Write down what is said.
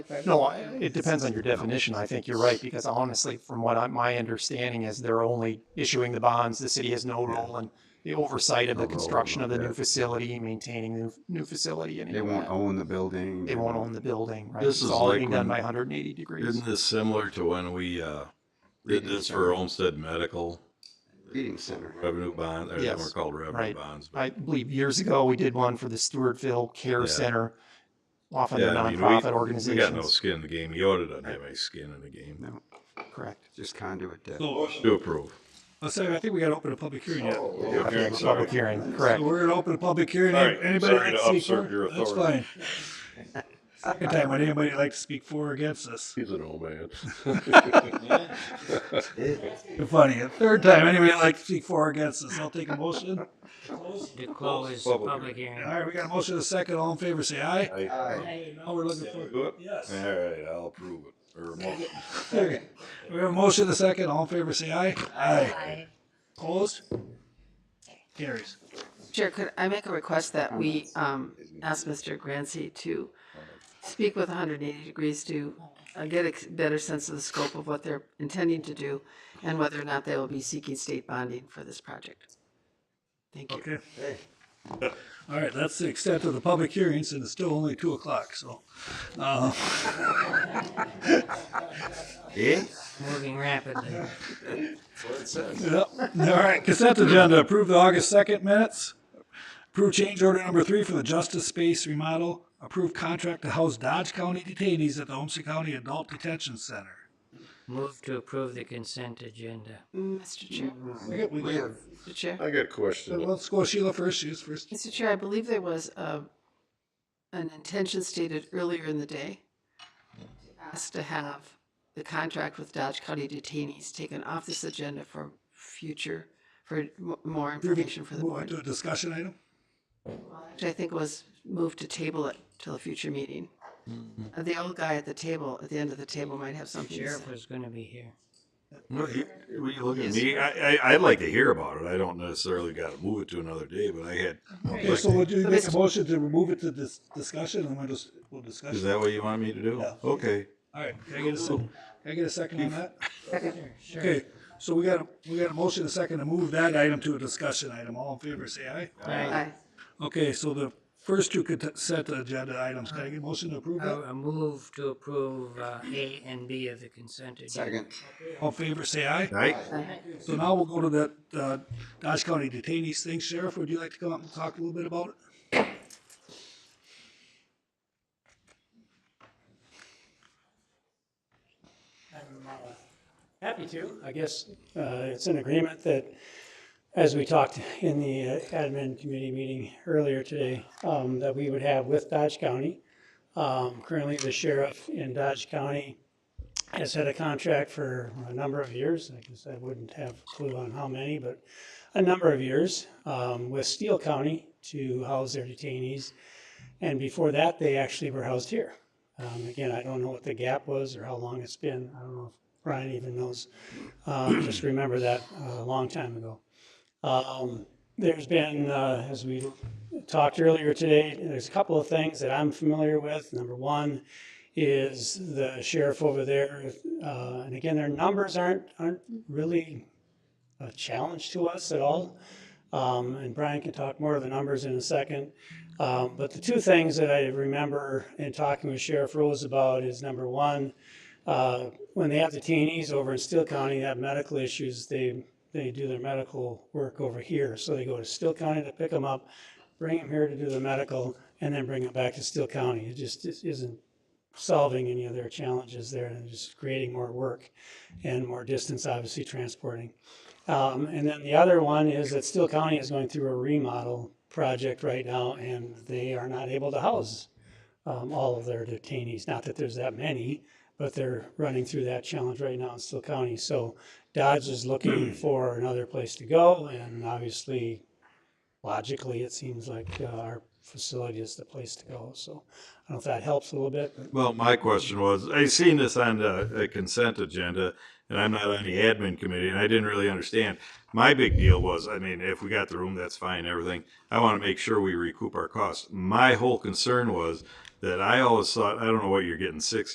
No, I- it depends on your definition. I think you're right, because honestly, from what I, my understanding is, they're only issuing the bonds. The city has no role in the oversight of No the role, construction of the new okay. facility, maintaining the new- new facility. and They won't own the building. They won't own the building, right? This It's is all like being done when- by 180 degrees. Isn't this similar to when we uh, did this for Olmsted Medical Feeding center. revenue bond? Or they were Yes, called revenue right. bonds. but- I believe years ago, we did one for the Stewartville Care Yeah. Center. Often they're Yeah, I mean, we- nonprofit We got no organizations. skin in the game. Yoda doesn't have any skin in the game. No, Correct. just conduit debt. So, To approve. let's say, I think we gotta open a public hearing yet. Okay, Public hearing, correct. So we're gonna open a public hearing. All right, Anybody sorry like to to speak usurp for? your That's authority. fine. Second time, would anybody like to speak for or against this? He's an old man. Funny, a third time, anybody like to speak for or against this? I'll take a motion. To close the public hearing. All right, we got a motion and a second. All in favor, say aye. Now we're looking for. Do it? Yes. All right, I'll approve it. Or motion. Okay. We have a motion and a second. All in favor, say aye. Aye. Opposed? Carries. Chair, could I make a request that we um, ask Mr. Grancy to speak with 180 degrees to uh, get a better sense of the scope of what they're intending to do and whether or not they will be seeking state bonding for this project? Thank you. Okay. All right, that's the extent of the public hearings, and it's still only two o'clock, so. uh, Eh? Moving rapidly. Yep. All right, consent agenda, approve the August second minutes. Approve change order number three for the justice space remodel. Approve contract to house Dodge County detainees at the Homestead County Adult Detention Center. Move to approve the consent agenda. Mr. Chair, We got- we We got- have, Mr. Chair. I got a question. Let's go Sheila first, she's first. Mr. Chair, I believe there was a, an intention stated earlier in the day asked to have the contract with Dodge County detainees taken off this agenda for future, for mo- more information for the Move on board, to a discussion item. which I think was moved to table it till a future meeting. Uh, The old guy at the table, at the end of the table might have something to say. Sheriff was gonna be here. Were you looking at me? I, I, I'd like to hear about it. I don't necessarily gotta move it to another day, but I had, Okay, so would you make a motion to remove it to this discussion, and we'll just, we'll discuss is it? that what you want me to do? Yeah. Okay. All right, can I get a second, can I get a second on that? Sure. Okay, so we got, a we got a motion, and a second to move that item to a discussion item. All in favor, say aye. Right. Aye. Okay, so the first two consent agenda items, can I get a motion to approve I that? I move to approve uh, A and B of the consent agenda. second. All in favor, say aye. Right? So now we'll go to that, uh, Dodge County detainees thing. Sheriff, would you like to come up and talk a little bit about it? Happy to. I guess uh, it's an agreement that, as we talked in the uh, admin committee meeting earlier today, um, that we would have with Dodge County. Um, Currently, the sheriff in Dodge County has had a contract for a number of years. I guess I wouldn't have a clue on how many, but a number of years um, with Steele County to house their detainees. And before that, they actually were housed here. Um, Again, I don't know what the gap was or how long it's been. I don't know if Brian even knows. Um, Just remember that uh, a long time ago. Um, There's been, uh, as we talked earlier today, there's a couple of things that I'm familiar with. Number one is the sheriff over there, uh, and again, their numbers aren't, aren't really a challenge to us at all. Um, and Brian can talk more of the numbers in a second. Um, but the two things that I remember in talking with Sheriff Rose about is number one, uh, when they have the detainees over in Steele County that have medical issues, they they do their medical work over here. So they go to Steele County to pick them up, bring them here to do the medical, and then bring them back to Steele County. It just is- isn't solving any of their challenges there and just creating more work and more distance, obviously transporting. Um, and then the other one is that Steele County is going through a remodel project right now, and they are not able to house um, all of their detainees. Not that there's that many, but they're running through that challenge right now in Steele County. So Dodge is looking for another place to go, and obviously, logically, it seems like uh, our facility is the place to go. So I don't know if that helps a little bit. but- Well, my question was, I seen this on the a consent agenda, and I'm not on the admin committee, and I didn't really understand. My big deal was, I mean, if we got the room, that's fine, everything. I want to make sure we recoup our costs. My whole concern was that I always thought, I don't know what you're getting six